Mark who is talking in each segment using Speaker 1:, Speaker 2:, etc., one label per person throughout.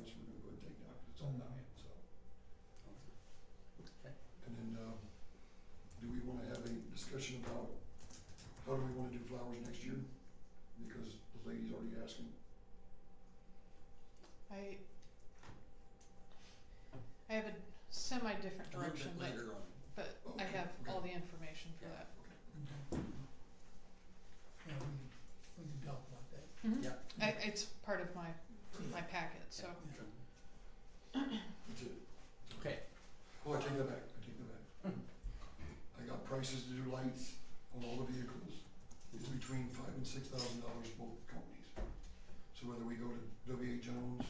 Speaker 1: um,
Speaker 2: different
Speaker 1: a little
Speaker 2: direction,
Speaker 1: bit
Speaker 2: but,
Speaker 1: later on.
Speaker 2: but I have all the information for
Speaker 1: Yeah,
Speaker 2: that.
Speaker 1: okay.
Speaker 3: Okay. Yeah, we can, we can talk about that.
Speaker 2: Mhm.
Speaker 1: Yeah.
Speaker 2: I, it's part of my, my packet, so,
Speaker 1: That's it.
Speaker 4: Okay.
Speaker 1: Oh, I take that back, I take that back. I got prices to do lights on all the vehicles, it's between five and six thousand dollars for both companies. So whether we go to W A Jones,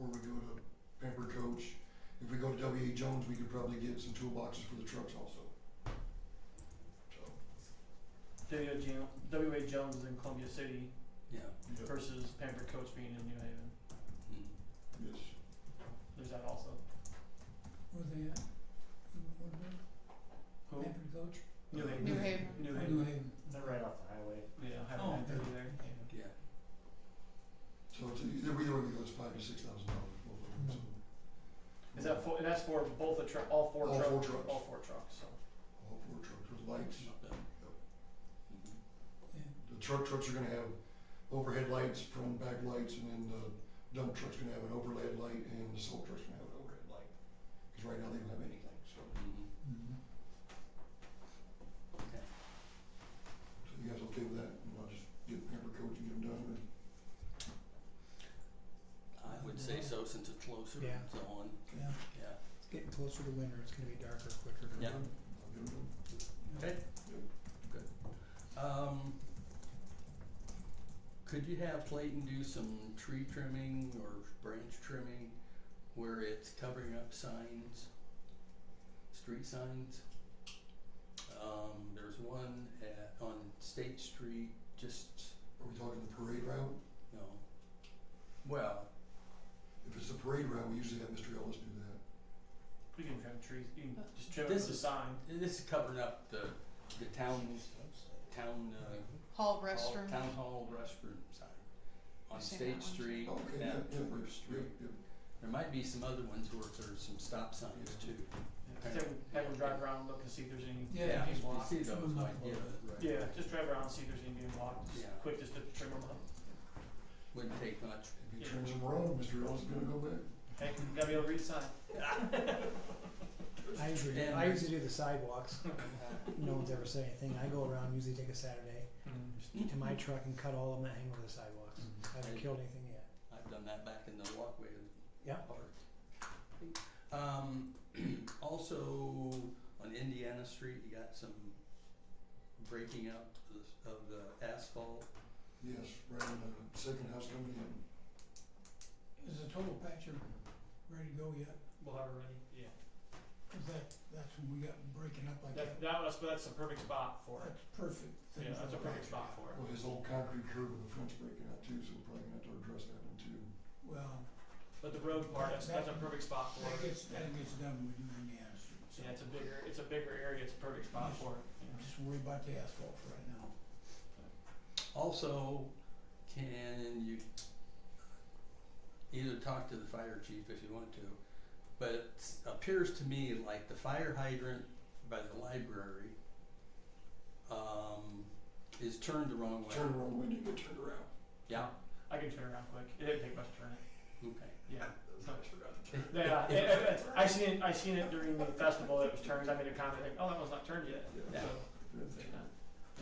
Speaker 1: or we go to Pamper Coach, if we go to W A Jones, we could probably get some toolboxes for the trucks also. So,
Speaker 5: W.A. Jones, W.A. Jones is in Columbia City
Speaker 4: Yeah.
Speaker 1: yeah,
Speaker 5: versus Pampered Coach being in New Haven.
Speaker 4: mm-hmm,
Speaker 1: yes,
Speaker 5: There's that also.
Speaker 3: Were they at, what, what,
Speaker 5: Who?
Speaker 3: Pampered Coach?
Speaker 5: New Haven.
Speaker 2: New Haven,
Speaker 5: New
Speaker 3: Or
Speaker 5: Haven.
Speaker 3: Haven.
Speaker 5: They're
Speaker 3: Okay.
Speaker 5: right
Speaker 6: off the highway.
Speaker 5: Yeah, have
Speaker 3: Oh,
Speaker 5: an
Speaker 3: okay.
Speaker 5: activity there.
Speaker 3: Okay.
Speaker 4: Yeah.
Speaker 1: so it's either either way, it goes five to six thousand dollars for both of them, so.
Speaker 5: Is that for, and that's for both the truck, all four
Speaker 1: All
Speaker 5: trucks?
Speaker 1: four trucks.
Speaker 5: All four trucks, so.
Speaker 1: All four trucks with lights.
Speaker 4: Mm-hmm,
Speaker 3: Yeah,
Speaker 1: The truck trucks are gonna have overhead lights, front and back lights, and then the dump truck's gonna have an overhead light, and the salt truck's gonna have an overhead light. Cause right now they don't have anything, so,
Speaker 4: mm-hmm.
Speaker 3: mhm.
Speaker 1: so you guys okay with that? And I'll just get Pepper Coach and get them done, and
Speaker 4: I would say so since it's closer
Speaker 7: Yeah.
Speaker 4: and so on.
Speaker 3: Yeah.
Speaker 4: Yeah.
Speaker 7: It's getting closer to winter, it's gonna be darker quicker.
Speaker 4: Yeah.
Speaker 1: I'll get them done.
Speaker 4: Okay. Um, could you have Clayton do some tree trimming or branch trimming where it's covering up signs, street signs? Um, there's one at, on State Street, just,
Speaker 1: Are we talking the parade route?
Speaker 4: no, well,
Speaker 1: If it's the parade route, we usually have Mr. Ellis do that.
Speaker 5: You can trim trees, you can
Speaker 3: Uh,
Speaker 5: just trim it
Speaker 4: This
Speaker 5: with a
Speaker 4: is-
Speaker 5: sign.
Speaker 4: this is covering up the, the town's, town, uh,
Speaker 2: hall
Speaker 4: hall-
Speaker 2: restroom.
Speaker 4: town hall restroom sign on
Speaker 2: I've seen that
Speaker 4: State
Speaker 2: one.
Speaker 4: Street.
Speaker 1: Okay, yeah,
Speaker 4: at
Speaker 1: yeah,
Speaker 4: River
Speaker 1: right,
Speaker 4: Street.
Speaker 1: yeah, yeah.
Speaker 4: There might be some other ones where there's some stop signs too.
Speaker 5: Have them, have them drive around, look and see if there's any
Speaker 3: Yeah,
Speaker 5: being
Speaker 3: just
Speaker 4: You
Speaker 5: blocked.
Speaker 4: see those, like, yeah, right.
Speaker 5: Yeah, just drive around, see if there's any being blocked. Just
Speaker 4: Yeah.
Speaker 5: Quick just to trim them up.
Speaker 4: Wouldn't take much.
Speaker 1: If he turns them around, Mr. Ellis is gonna go back.
Speaker 5: Hey, you gotta be able to read sign.
Speaker 7: I usually,
Speaker 4: And-
Speaker 7: I usually do the sidewalks, no one's ever said anything, I go around, usually take a Saturday
Speaker 3: Hmm.
Speaker 7: to my truck and cut all of them that hang over the sidewalks, I haven't killed anything yet.
Speaker 4: I've done that back in the walkway of the
Speaker 7: Yeah.
Speaker 4: park. Um, also, on Indiana Street, you got some breaking up of the- of the asphalt.
Speaker 1: Yes, right, on the second house coming in.
Speaker 3: Is the total patcher ready to go yet?
Speaker 5: We'll have it ready. Yeah.
Speaker 3: Cause that, that's when we got breaking up like
Speaker 5: That,
Speaker 3: that.
Speaker 5: that was, that's a perfect spot for it.
Speaker 3: That's perfect. thing
Speaker 5: Yeah,
Speaker 3: for
Speaker 5: that's a
Speaker 3: the
Speaker 5: perfect
Speaker 3: patcher.
Speaker 5: spot for it.
Speaker 1: Well, his old concrete curb and the fence breaking out too, so we're probably gonna have to address that one too.
Speaker 3: Well,
Speaker 5: But the road part, that's, that's a perfect spot for
Speaker 3: that
Speaker 5: it.
Speaker 3: gets, that gets done when you Indiana Street, so.
Speaker 5: Yeah, it's a bigger, it's a bigger area, it's a perfect spot for it.
Speaker 3: I'm Just worry about the asphalt for right now.
Speaker 4: Also, can you either talk to the fire chief if you want to, but it appears to me like the fire hydrant by the library um, is turned the wrong way.
Speaker 1: Turn around when you get turned around.
Speaker 4: Yeah,
Speaker 5: I can turn around quick. It didn't take much to turn it.
Speaker 4: okay.
Speaker 5: Yeah.
Speaker 1: I forgot to turn.
Speaker 5: Yeah, it- it- I seen it, I seen it during the festival, it was turned, I made a comment, like, oh, that one's not turned yet.
Speaker 4: Yeah.
Speaker 5: So,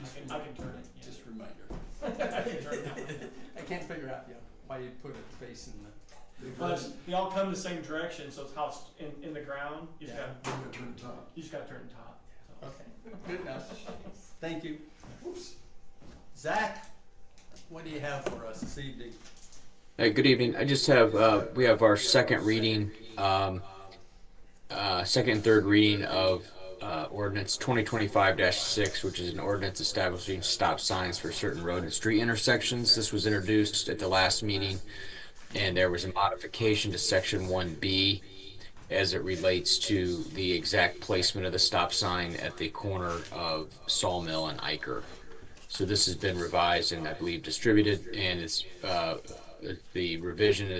Speaker 5: I can, I can turn it, yeah.
Speaker 4: Just a reminder.
Speaker 5: I can turn that one.
Speaker 4: I can't figure out yeah, why you put it facing the,
Speaker 1: They've
Speaker 5: Well,
Speaker 1: got,
Speaker 5: it's, they all come the same direction, so it's how it's in, in the ground, you just
Speaker 4: Yeah.
Speaker 5: gotta,
Speaker 1: they've got to turn the top.
Speaker 5: you just gotta turn top, so.
Speaker 4: okay, good enough. Thank you. Zach, what do you have for us this evening?
Speaker 8: Uh, good evening. I just have uh, we have our second reading, um, uh, second and third reading of uh, ordinance 2025-6, which is an ordinance establishing stop signs for certain road and street intersections. This was introduced at the last meeting, and there was a modification to section 1B as it relates to the exact placement of the stop sign at the corner of Sawmill and Iker. So this has been revised and I believe distributed, and it's, uh, the revision is.